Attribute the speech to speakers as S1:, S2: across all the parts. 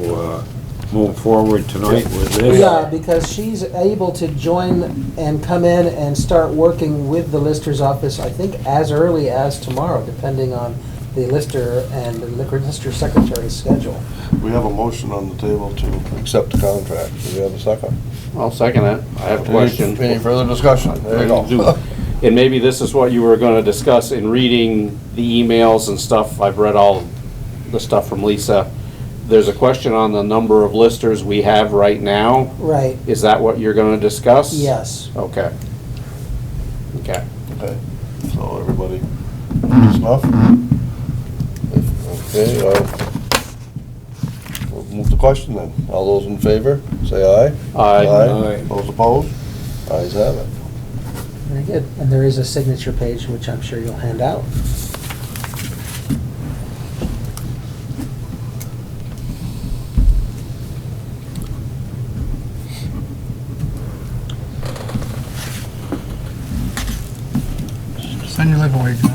S1: uh, move forward tonight with this.
S2: Yeah, because she's able to join and come in and start working with the Lister's office, I think, as early as tomorrow, depending on the Lister and the liquor- Lister Secretary's schedule.
S3: We have a motion on the table to accept the contract. Do we have a second?
S4: I'll second it. I have a
S3: Any-
S4: question.
S3: Any further discussion? There you go.
S4: And maybe this is what you were gonna discuss in reading the emails and stuff. I've read all the stuff from Lisa. There's a question on the number of listers we have right now.
S2: Right,
S4: Is that what you're gonna discuss?
S2: yes.
S4: Okay. Okay.
S3: Okay, so everybody, enough? Okay, uh, we'll move to question then. All those in favor, say aye.
S4: Aye.
S1: Aye.
S3: Those opposed? Ayes have it.
S2: Very good. And there is a signature page, which I'm sure you'll hand out.
S5: Send your life away, Joe.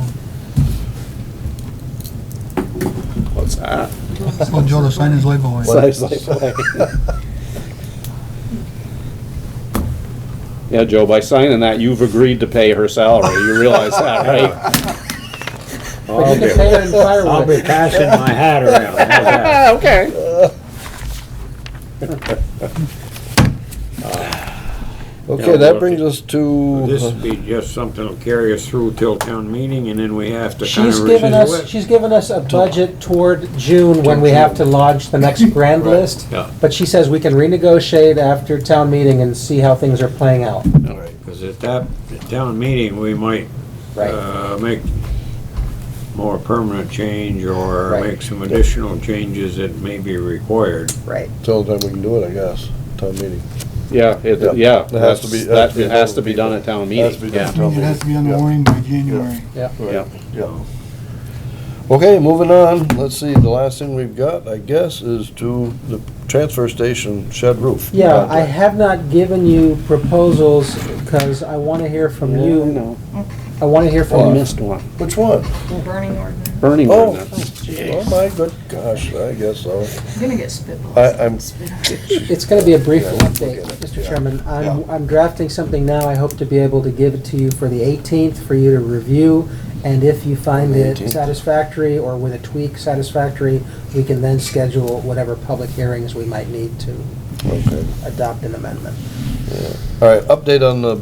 S4: What's that?
S5: Tell Joe to sign his life away.
S4: Size life away. Yeah, Joe, by signing that, you've agreed to pay her salary. You realize that, right?
S2: But you can pay her in
S1: I'll be
S2: firewood.
S1: passing my hat around. How's that?
S3: Okay, that brings us to.
S1: This would be just something that'll carry us through till town meeting, and then we have to kind
S2: She's
S1: of revisit
S2: given us,
S1: it.
S2: she's given us a budget toward June when we have to launch the next grand list.
S1: Yeah,
S2: But she says we can renegotiate after town meeting and see how things are playing out.
S1: because at that town meeting, we might uh, make more permanent change or
S2: Right.
S1: make some additional changes that may be required.
S2: right.
S3: Till the time we can do it, I guess, town meeting.
S4: Yeah,
S3: Yeah.
S4: it, yeah.
S3: It has to be- it has to
S4: that's- that-
S3: be
S4: It has to
S3: done.
S4: be done at town
S3: Has to be
S4: meeting,
S3: done.
S4: yeah.
S5: Means it has to be on the
S3: Yeah.
S5: warning by January.
S4: Yeah.
S3: Yeah. Okay, moving on, let's see, the last thing we've got, I guess, is to the transfer station shed roof.
S2: Yeah, I have not given you proposals because I want to hear from you. I want to hear
S3: Well,
S2: from you.
S4: missed one.
S3: Which one?
S6: Burning ordinance.
S4: Burning
S3: Oh.
S4: ordinance.
S3: Oh, my good gosh, I guess so.
S6: I'm gonna get spitballs.
S3: I, I'm,
S2: It's going to be a brief
S3: Yeah, we'll
S2: update,
S3: get it.
S2: Mr.
S3: Yeah.
S2: Chairman.
S3: Yeah.
S2: I'm, I'm drafting something now. I hope to be able to give it to you for the 18th for you to review. And if you find
S3: The
S2: it
S3: 18th.
S2: satisfactory or with a tweak satisfactory, we can then schedule whatever public hearings we might need to
S3: okay.
S2: adopt an amendment.
S3: All right, update on the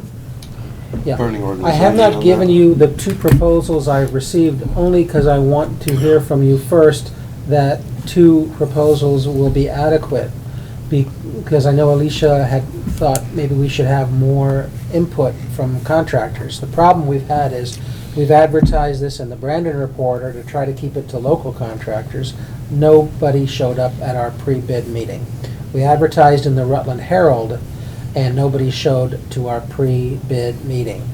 S2: Yeah.
S3: burning ordinance.
S2: I have not given you the two proposals I've received, only because I want to hear from you first that two proposals will be adequate. Be- Because I know Alicia had thought maybe we should have more input from contractors. The problem we've had is, we've advertised this in the Brandon Reporter to try to keep it to local contractors. Nobody showed up at our pre-bid meeting. We advertised in the Rutland Herald, and nobody showed to our pre-bid meeting.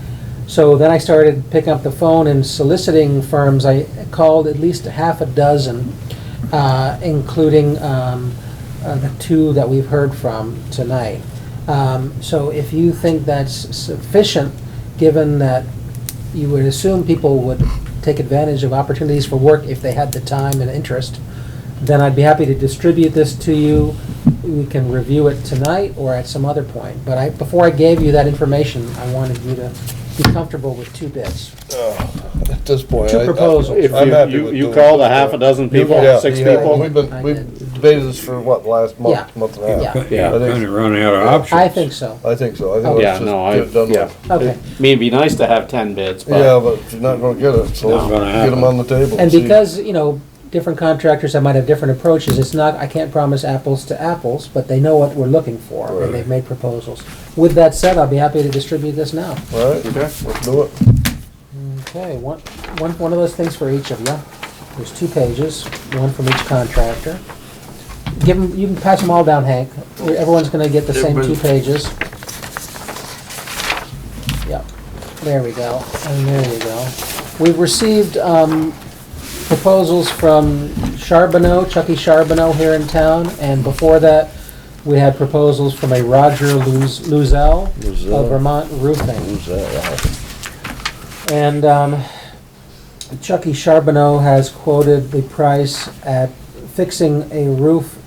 S2: So then I started picking up the phone and soliciting firms. I called at least half a dozen, uh, including um, uh, the two that we've heard from tonight. Um, So if you think that's sufficient, given that you would assume people would take advantage of opportunities for work if they had the time and interest, then I'd be happy to distribute this to you. We can review it tonight or at some other point. But I, before I gave you that information, I wanted you to be comfortable with two bids.
S3: At this point.
S2: Two
S3: I- I-
S2: proposals.
S4: If
S3: I'm
S4: you-
S3: happy
S4: you-
S3: with
S4: you
S3: doing
S4: called a
S3: this.
S4: half a dozen people,
S3: Yeah,
S4: six
S3: yeah,
S2: people?
S3: We've been,
S2: I
S3: we've
S2: did.
S3: debated this for what, last month,
S2: Yeah.
S3: month and a half?
S2: Yeah.
S4: Yeah.
S1: Yeah, kind of running out of options.
S2: I think so.
S3: I think so, I think
S4: Yeah,
S3: let's just
S4: no, I,
S3: get it done
S4: yeah.
S3: with.
S2: Okay.
S4: I mean, it'd be nice to have ten bids,
S3: Yeah,
S4: but
S3: but if you're not gonna get it, so
S1: Not
S3: let's
S1: gonna
S3: get them
S1: happen.
S3: on the table.
S2: And
S3: see.
S2: because, you know, different contractors that might have different approaches, it's not, I can't promise apples to apples, but they know what we're looking for,
S3: Right.
S2: and they've made proposals. With that said, I'll be happy to distribute this now.
S3: All right, let's do it.
S2: Okay, one, one, one of those things for each of you. There's two pages, one from each contractor. Give 'em- you can pass them all down, Hank. Everyone's gonna get the same two pages. Yep, there we go, and there you go. We've received, um, proposals from Charbonneau, Chucky Charbonneau here in town, and before that, we had proposals from a Roger Luz- Luzel
S3: Luzel.
S2: of Vermont Roofing.
S3: Who's that? Wow.
S2: And um, E. Chucky Charbonneau has quoted the price at fixing a roof